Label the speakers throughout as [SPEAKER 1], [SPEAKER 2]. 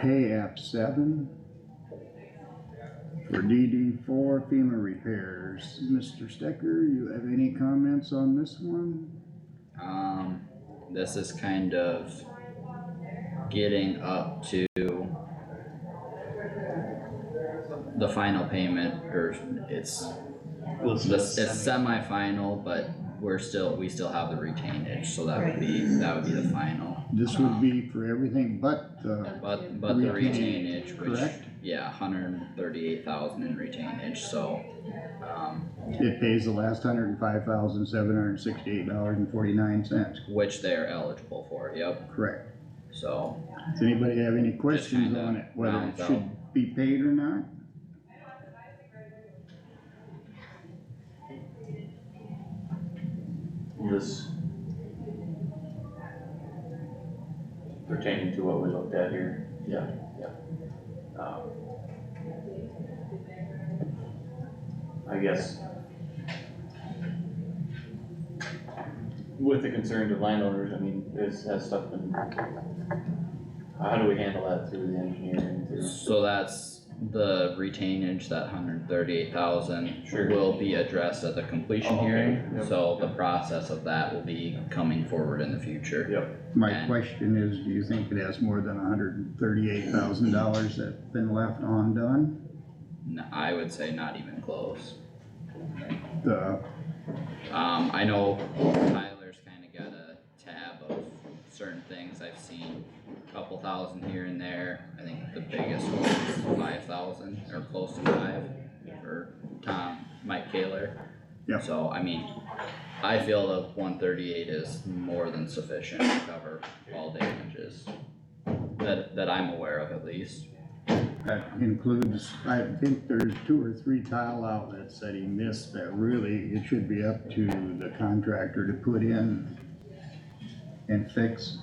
[SPEAKER 1] pay app seven for DD four FEMA repairs. Mr. Stecker, you have any comments on this one?
[SPEAKER 2] Um, this is kind of getting up to the final payment, or it's, it's it's semifinal, but we're still, we still have the retainage, so that would be, that would be the final.
[SPEAKER 1] This would be for everything but uh, the,
[SPEAKER 2] But, but the
[SPEAKER 1] Retainage,
[SPEAKER 2] retainage, which,
[SPEAKER 1] correct?
[SPEAKER 2] yeah, hundred and thirty-eight thousand in retainage, so, um,
[SPEAKER 1] it pays the last hundred and five thousand, seven hundred and sixty-eight dollars and forty-nine cents,
[SPEAKER 2] which they're eligible for, yep,
[SPEAKER 1] correct?
[SPEAKER 2] so.
[SPEAKER 1] Does anybody have any questions
[SPEAKER 2] kinda
[SPEAKER 1] on it, whether it
[SPEAKER 2] rounds
[SPEAKER 1] should be paid or not?
[SPEAKER 3] This. Pertaining to what we looked at here. Yeah. Yeah. Um, I guess. With the concern to landowners, I mean, is, has stuff been. How do we handle that through the engineering, through?
[SPEAKER 2] So that's the retainage, that hundred thirty-eight thousand
[SPEAKER 3] Sure.
[SPEAKER 2] will be addressed at the completion
[SPEAKER 3] Okay,
[SPEAKER 2] hearing.
[SPEAKER 3] yep,
[SPEAKER 2] So the
[SPEAKER 3] yep.
[SPEAKER 2] process of that will be coming forward in the future.
[SPEAKER 3] Yep,
[SPEAKER 1] My
[SPEAKER 2] And-
[SPEAKER 1] question is, do you think it has more than hundred and thirty-eight thousand dollars that's been left undone?
[SPEAKER 2] N- I would say not even close.
[SPEAKER 1] The,
[SPEAKER 2] Um, I know Tyler's kinda got a tab of certain things I've seen, a couple thousand here and there. I think the biggest one was five thousand or close to five for Tom, Mike Kaler.
[SPEAKER 1] Yeah.
[SPEAKER 2] So, I mean, I feel the one thirty-eight is more than sufficient to cover all damages. That, that I'm aware of at least.
[SPEAKER 1] that includes, I think there's two or three tile outlets that he missed that really, it should be up to the contractor to put in and fix.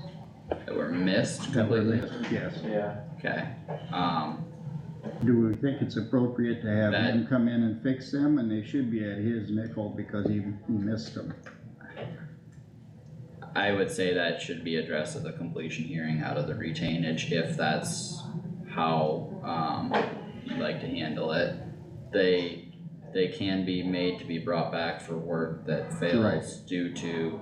[SPEAKER 2] That were missed completely.
[SPEAKER 1] Yes.
[SPEAKER 3] yeah,
[SPEAKER 2] Okay, um.
[SPEAKER 1] Do we think it's appropriate to have
[SPEAKER 2] That-
[SPEAKER 1] him come in and fix them, and they should be at his nickel because he, he missed them?
[SPEAKER 2] I would say that should be addressed at the completion hearing out of the retainage, if that's how, um, you'd like to handle it. They, they can be made to be brought back for work that fails due to,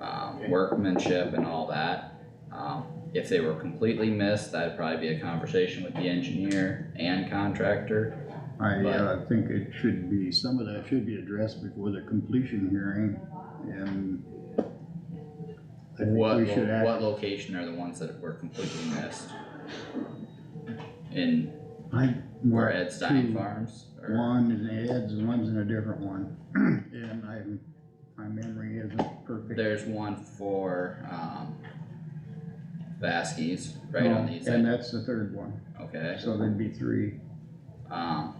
[SPEAKER 2] um, workmanship and all that. Um, if they were completely missed, that'd probably be a conversation with the engineer and contractor.
[SPEAKER 1] I,
[SPEAKER 2] But-
[SPEAKER 1] uh, think it should be, some of that should be addressed before the completion hearing, and I think
[SPEAKER 2] What,
[SPEAKER 1] we
[SPEAKER 2] lo-
[SPEAKER 1] should act,
[SPEAKER 2] what location are the ones that were completely missed? In
[SPEAKER 1] I,
[SPEAKER 2] Where
[SPEAKER 1] well,
[SPEAKER 2] Ed Stein
[SPEAKER 1] two,
[SPEAKER 2] Farms, or,
[SPEAKER 1] Hmm. one is in Ed's, and one's in a different one, and I, my memory isn't perfect.
[SPEAKER 2] there's one for, um, Vasquez, right on the east
[SPEAKER 1] Oh, And
[SPEAKER 2] side,
[SPEAKER 1] that's the third one,
[SPEAKER 2] okay,
[SPEAKER 1] so there'd be three,
[SPEAKER 2] um,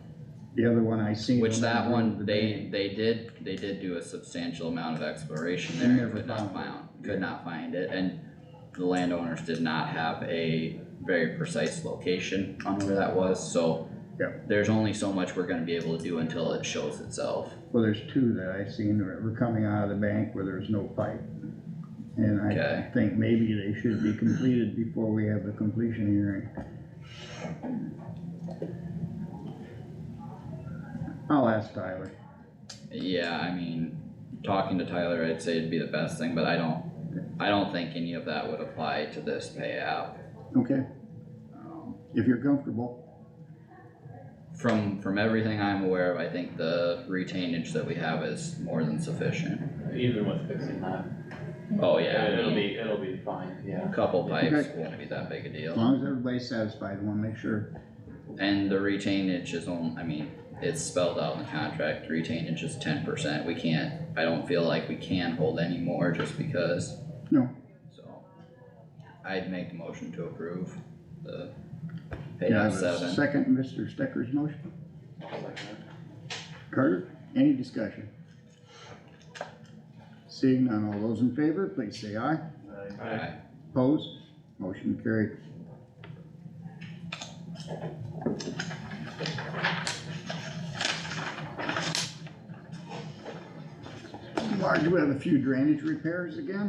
[SPEAKER 1] the other one I seen.
[SPEAKER 2] which
[SPEAKER 1] on
[SPEAKER 2] that
[SPEAKER 1] the
[SPEAKER 2] one, they,
[SPEAKER 1] bank.
[SPEAKER 2] they did, they did do a substantial amount of exploration
[SPEAKER 1] They
[SPEAKER 2] there, and
[SPEAKER 1] never
[SPEAKER 2] could not
[SPEAKER 1] found it.
[SPEAKER 2] found, could not find it, and the landowners did not have a very precise location on where that was, so
[SPEAKER 1] Yeah.
[SPEAKER 2] there's only so much we're gonna be able to do until it shows itself,
[SPEAKER 1] Well, there's two that I seen that were coming out of the bank where there's no pipe. And I
[SPEAKER 2] okay?
[SPEAKER 1] think maybe they should be completed before we have the completion hearing. I'll ask Tyler.
[SPEAKER 2] Yeah, I mean, talking to Tyler, I'd say it'd be the best thing, but I don't, I don't think any of that would apply to this pay app.
[SPEAKER 1] Okay,
[SPEAKER 2] Um,
[SPEAKER 1] if you're comfortable,
[SPEAKER 2] From, from everything I'm aware of, I think the retainage that we have is more than sufficient.
[SPEAKER 3] even with fixing that,
[SPEAKER 2] Oh, yeah, I
[SPEAKER 3] it'll
[SPEAKER 2] mean,
[SPEAKER 3] be, it'll be fine, yeah.
[SPEAKER 2] a couple pipes
[SPEAKER 1] Okay.
[SPEAKER 2] won't be that big a
[SPEAKER 1] as
[SPEAKER 2] deal.
[SPEAKER 1] long as everybody's satisfied, we'll make sure.
[SPEAKER 2] And the retainage is on, I mean, it's spelled out in the contract, retainage is ten percent, we can't, I don't feel like we can hold any more just because.
[SPEAKER 1] No.
[SPEAKER 2] So, I'd make the motion to approve the pay
[SPEAKER 1] Can I
[SPEAKER 2] out
[SPEAKER 1] have a
[SPEAKER 2] seven.
[SPEAKER 1] Second, Mr. Stecker's motion.
[SPEAKER 3] Second.
[SPEAKER 1] Carter, any discussion? Seeing none, all those in favor, please say aye.
[SPEAKER 2] Aye.
[SPEAKER 1] Opposed? Motion carried. Marge, do we have a few drainage repairs again?